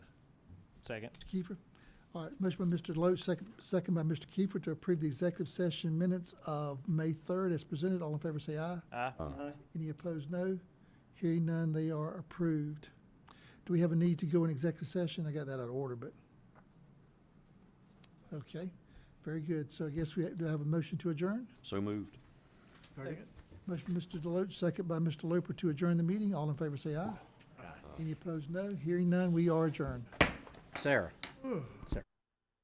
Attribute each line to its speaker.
Speaker 1: Second.
Speaker 2: Mr. Kiefer. All right, motion by Mr. Deloach, second, second by Mr. Kiefer to approve the executive session minutes of May third as presented. All in favor say aye.
Speaker 1: Aye.
Speaker 2: Any opposed, no. Hearing none, they are approved. Do we have a need to go in executive session? I got that out of order, but. Okay, very good. So I guess we, do I have a motion to adjourn?
Speaker 3: So moved.
Speaker 2: Motion by Mr. Deloach, second by Mr. Loper to adjourn the meeting. All in favor say aye. Any opposed, no. Hearing none, we are adjourned.
Speaker 1: Sarah.